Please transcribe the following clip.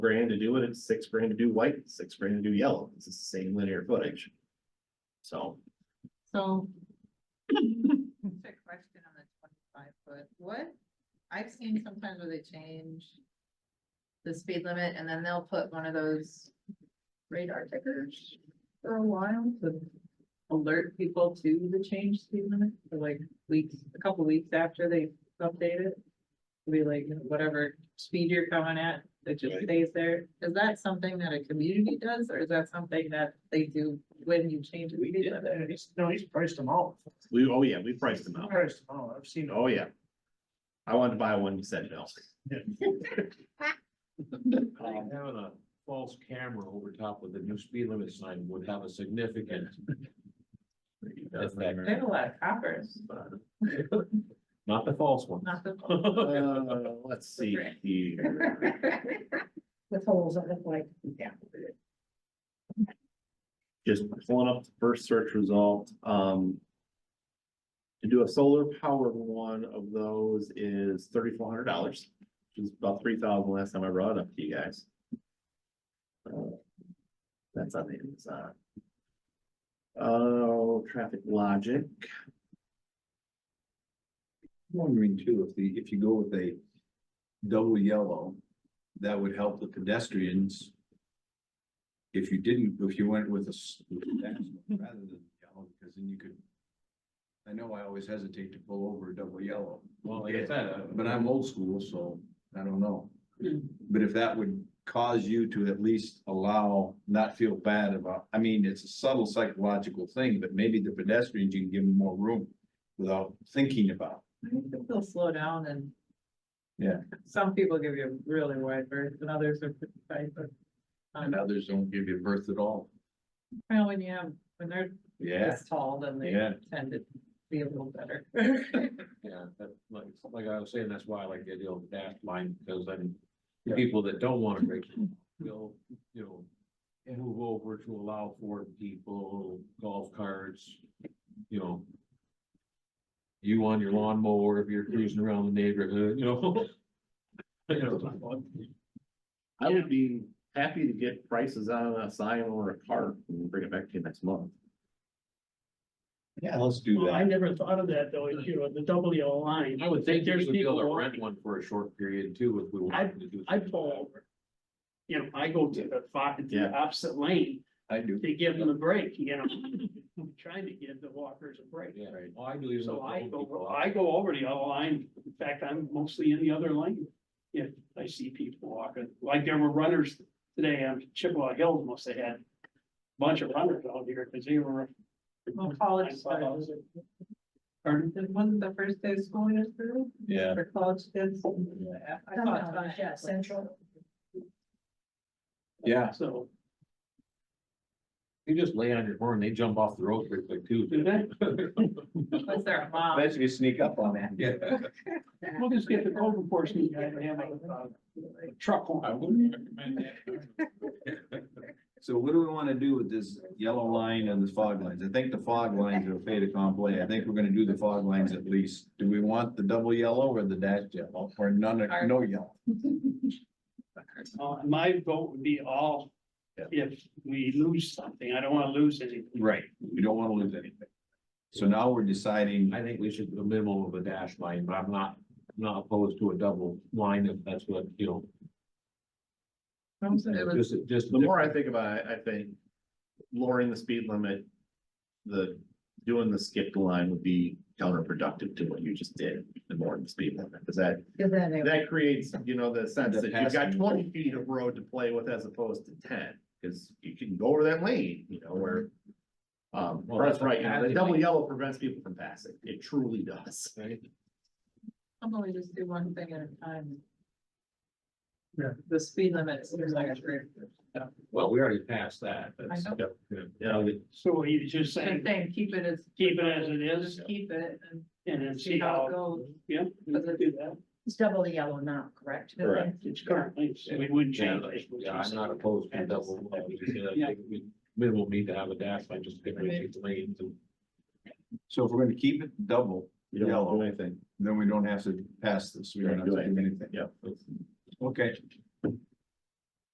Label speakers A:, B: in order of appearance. A: grand to do it, it's six grand to do white, it's six grand to do yellow, it's the same linear footage. So,
B: So,
C: Quick question on the twenty-five foot, what, I've seen sometimes where they change. The speed limit and then they'll put one of those radar tickers for a while to. Alert people to the change speed limit for like weeks, a couple weeks after they update it. Be like, you know, whatever speed you're coming at, it just
A: Right.
C: stays there. Is that something that a community does or is that something that they do when you change? the
D: We
C: speed
D: did
C: limit?
D: that, he's, no, he's priced them out.
A: we, oh yeah, we priced them out,
D: Priced them out, I've seen.
A: oh yeah. I wanted to buy one, you said no.
E: Um, Having a false camera over top of the new speed limit sign would have a significant. effect.
C: They have a lot of coppers.
E: Not the false one.
C: Not the.
A: Uh, let's see here.
B: with holes that look like,
A: just pulling up the first search result, um. To do a solar powered one of those is thirty-four hundred dollars, which is about three thousand last time I brought it up to you guys. Uh, That's on the inside. Oh, traffic logic,
F: Wondering too, if the, if you go with a double yellow, that would help the pedestrians. If you didn't, if you went with a s- with a dash rather than yellow, because then you could. I know I always hesitate to pull over a double yellow,
E: Well, like I said, uh,
F: but I'm old school, so I don't know. But if that would cause you to at least allow, not feel bad about, I mean, it's a subtle psychological thing, but maybe the pedestrians, you can give them more room without thinking about.
C: I think that They'll slow down and.
F: Yeah.
C: Some people give you a really wide berth and others are pretty tight, but.
F: And others don't give you birth at all.
C: Well, when you have, when they're
F: Yeah,
C: this tall, then they
F: yeah.
C: tend to be a little better.
E: yeah, that, like, like I was saying, that's why I like the idea of the dash line, because then the people that don't want to break will, you know, move over to allow for people, golf carts, you know, you on your lawnmower if you're cruising around the neighborhood, you know? You know,
A: I would be happy to get prices on a sign or a cart and bring it back to you next month.
F: Yeah, let's do
D: Well, I
F: that.
D: never thought of that though, you know, the double yellow line,
E: I would think
D: There's
E: there's would be able
D: people
E: to
D: walking.
E: rent one for a short period too, if we wanted to do.
D: I pull over. You know, I go to the far, to the
A: Yeah.
D: opposite lane
F: I do.
D: to give them a break, you know, I'm trying to give the walkers a break.
E: Yeah, right. Well, I believe.
D: So I go,
E: I
D: I go over the yellow line, in fact, I'm mostly in the other lane. If I see people walking, like there were runners today on Chippewa Hills, must have had a bunch of runners out here, because they were.
C: Well, college
D: I saw
C: started.
D: those. Pardon?
C: It wasn't the first day of school yesterday
F: Yeah.
C: for college kids. I thought
B: Sometimes, yeah, central.
F: Yeah.
D: So,
E: You just lay on your horn, they jump off the road pretty quick too.
D: do that,
C: Was there a mom?
F: Eventually sneak up on that. Yeah.
D: we'll just get the code enforcement guy to have a uh, truck
E: I
D: on.
E: wouldn't recommend that.
F: So what do we want to do with this yellow line and the fog lines? I think the fog lines are a fait accompli. I think we're gonna do the fog lines at least. Do we want the double yellow or the dash yellow or none, of- no yellow?
D: Uh, my vote would be all,
F: Yeah.
D: if we lose something, I don't wanna lose anything.
F: Right. We don't want to lose anything. So now we're deciding,
E: I think we should do a minimum of a dash line, but I'm not, not opposed to a double line if that's what, you know.
C: Mom said it was
E: Just, just.
A: The more I think about it, I think lowering the speed limit, the, doing the skipped line would be counterproductive to what you just did, the more the speed limit, because that,
B: Cause then it-
A: that creates, you know, the sense that you've got
F: passing.
A: twenty feet of road to play with as opposed to ten, because you can go over that lane, you know, where um,
E: Well,
A: that's
E: that's
A: right, you know, the
E: passing
A: double
E: lane.
A: yellow prevents people from passing, it truly does.
E: Right?
C: probably just do one thing at a time.
D: Yeah.
C: The speed limit seems like a trip.
E: Well, we already passed that.
C: I
E: That's,
C: know.
A: Yeah,
D: So you just saying,
C: Same thing, keep it as.
D: Keep it as it is.
C: Just Keep it and
D: and then see how,
C: goes.
D: yeah, we could do that.
B: it's double the yellow now, correct?
A: Correct.
D: It's currently, so we wouldn't
E: yeah,
D: change it.
E: yeah, I'm not opposed to a double. line. We just, uh,
D: Yeah.
E: think we- Minimum need to have a dash line, just differentiate the lanes and.
F: so if we're gonna keep it double,
A: you don't
F: Yellow.
A: do anything.
F: then we don't have to pass this. We don't have to do anything.
A: Yeah.
F: Okay,